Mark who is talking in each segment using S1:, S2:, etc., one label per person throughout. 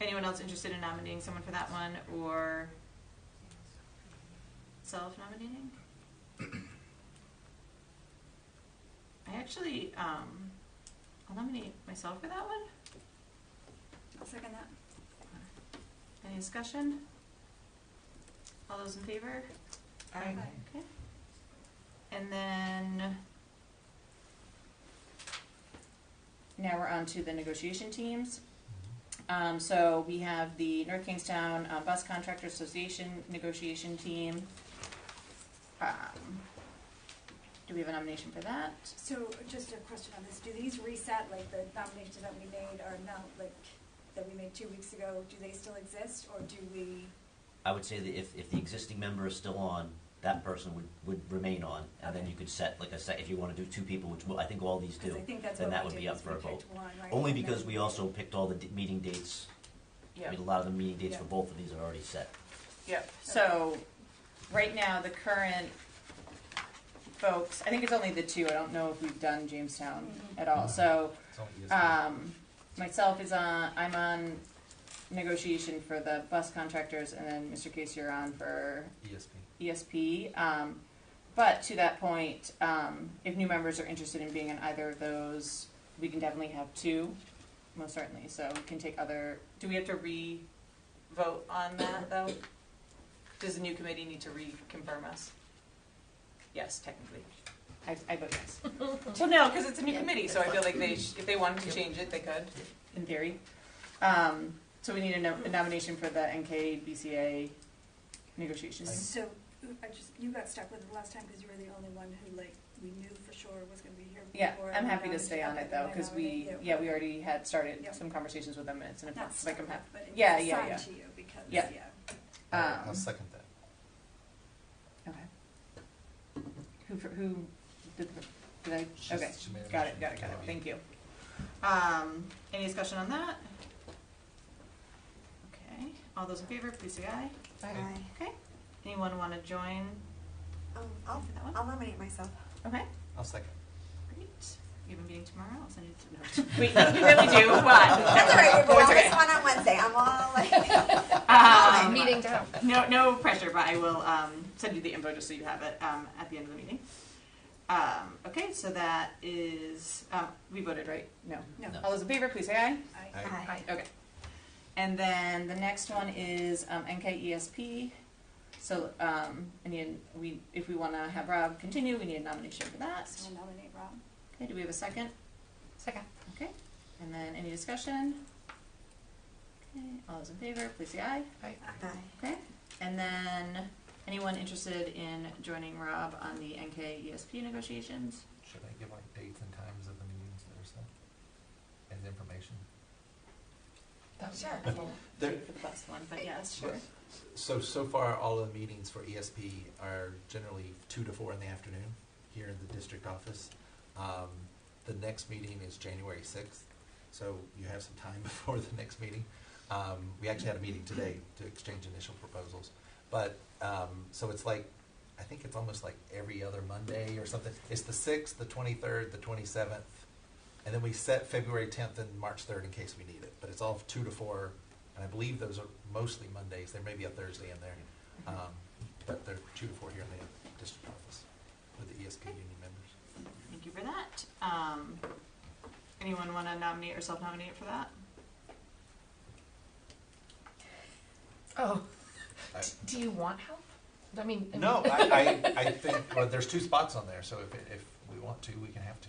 S1: anyone else interested in nominating someone for that one or self-nominating? I actually, um, I'll nominate myself for that one.
S2: I'll second that.
S1: Any discussion? All those in favor?
S3: Aye.
S1: Okay. And then, now we're on to the negotiation teams. Um, so we have the North Kingstown uh, Bus Contractor Association negotiation team. Um, Do we have a nomination for that?
S2: So just a question on this, do these reset, like the nominations that we made are not, like, that we made two weeks ago, do they still exist, or do we?
S4: I would say that if, if the existing member is still on, that person would, would remain on, and then you could set, like I said, if you wanna do two people, which I think all these
S2: Because
S4: do.
S2: I think that's
S4: then
S2: what
S4: that
S2: we
S4: would
S2: did,
S4: be up
S2: is
S4: for
S2: we
S4: a
S2: picked one, right?
S4: Only
S2: and then
S4: because we also picked all the d- meeting dates, I
S3: Yeah,
S4: mean, a lot of the meeting dates for
S3: Yeah.
S4: both of these are already set.
S3: yeah.
S1: So, right now, the current folks, I think it's only the two, I don't know if we've done Jamestown
S2: Mhm.
S1: at all, so,
S5: It's E only just-
S1: um, myself is on, I'm on negotiation for the bus contractors, and then Mr. Case, you're on for
S5: ESP.
S1: ESP. E Um, but to that point, um, if new members are interested in being on either of those, we can definitely have two, most certainly, so we can take other, do we have to re? Vote on that, though? Does the new committee need to reconfirm us? Yes, technically. I, I vote yes. Well, no, because it's a new committee, so I feel like they, sh- if they wanted to change it, they could. In theory. Um, so we need a no- a nomination for the NKBCA negotiations.
S2: So, I just, you got stuck with it last time, because you were the only one who, like, we knew for sure was gonna be here
S1: Yeah,
S2: before.
S1: I'm
S2: we
S1: happy to
S2: nominated-
S1: stay on
S2: okay,
S1: it though,
S2: then I
S1: because we,
S2: nominate you.
S1: yeah, we already had started
S2: Yep.
S1: some conversations with them, and it's an,
S2: Not
S1: like, I'm
S2: stuck,
S1: happy.
S2: but it's
S1: Yeah, yeah,
S2: assigned
S1: yeah.
S2: to you, because,
S1: Yeah.
S2: yeah.
S5: I'll I'll
S1: Um,
S5: second that.
S1: Okay. Who, fir- who, did, did
S5: She's-
S1: I, okay,
S5: she made a
S1: got it,
S5: motion.
S1: got it, got it,
S5: Yeah.
S1: thank you. Um, any discussion on that? Okay, all those in favor, please say aye.
S5: Aye.
S1: Okay, anyone wanna join Oh,
S6: Um,
S1: for
S6: I'll,
S1: that one?
S6: I'll nominate myself.
S1: Okay,
S5: I'll second.
S1: great, we have a meeting tomorrow, I'll send you to. We, we really do, what?
S6: That's all right,
S1: That's
S6: we're all
S1: okay.
S6: this one on Wednesday, I'm all like,
S1: Um,
S7: meeting down.
S1: No, no pressure, but I will um, send you the info just so you have it um, at the end of the meeting. Um, okay, so that is um, we voted right. No.
S2: No.
S4: No.
S1: All those in favor, please say aye.
S2: I-
S5: Aye.
S6: Aye.
S1: Okay. And then the next one is um, NKESP. So um, I need we if we want to have Rob continue, we need a nomination for that.
S2: So we'll nominate Rob.
S1: Okay, do we have a second?
S7: Second.
S1: Okay. And then any discussion? Okay, all those in favor, please say aye.
S6: aye.
S1: Okay, and then, anyone interested in joining Rob on the NK ESP negotiations?
S5: Should I give like dates and times of the meetings that are set? As information?
S6: Sure.
S5: There-
S1: Wait For the best one, but yes, sure.
S5: So, so far, all of the meetings for ESP are generally two to four in the afternoon here in the district office. Um, The next meeting is January sixth, so you have some time before the next meeting. Um, We actually had a meeting today to exchange initial proposals. But, um, so it's like, I think it's almost like every other Monday or something. It's the sixth, the twenty-third, the twenty-seventh, and then we set February tenth and March third in case we need it. But it's all two to four, and I believe those are mostly Mondays. There may be a Thursday in there. Um, but they're two to four here in the district office with the ESP union members.
S1: Thank you for that. Um, anyone wanna nominate or self-nominate for that?
S7: Oh,
S5: I-
S7: do you want help? I mean, I
S5: No,
S7: mean-
S5: I, I, I think, well, there's two spots on there, so if, if we want to, we can have to.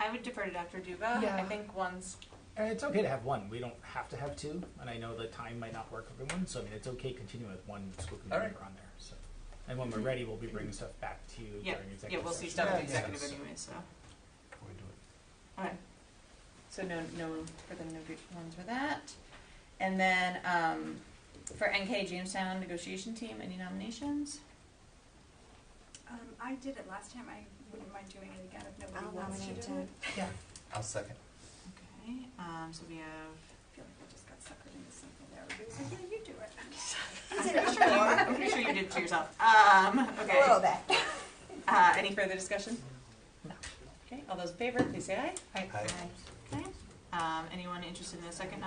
S1: I would defer to Dr. Duba. I
S7: Yeah.
S1: think one's,
S8: And it's okay to have one. We don't have to have two. And I know the time might not work for everyone, so I mean, it's okay continuing with one school committee
S5: All right.
S8: member on there. So, and when we're ready, we'll be bringing stuff back to you
S1: Mm-hmm. yeah,
S8: during
S1: yeah,
S8: executive
S1: we'll see
S8: session.
S1: stuff in
S5: Yeah, yeah.
S1: executive anyway, so.
S5: Before we do it.
S1: Alright. So no, no, for the no good ones for that. And then, um, for NK Jamestown negotiation team, any nominations?
S2: Um, I did it last time, I wouldn't mind doing it again if nobody
S6: I'll
S2: wants to
S6: nominate
S2: do it.
S6: Jen.
S5: I'll second.
S1: Okay, um, so we have
S2: I feel like I just got suckered into something there. Everybody's like, yeah, you do it.
S6: He's
S1: I'm
S6: in
S1: pretty sure you,
S6: it before.
S1: I'm pretty sure you did it to yourself. Um,
S6: A little
S1: okay.
S6: bit.
S1: Uh, any further discussion? Okay, all those in favor, please say aye.
S5: Aye.
S1: Okay. Um, anyone interested in a second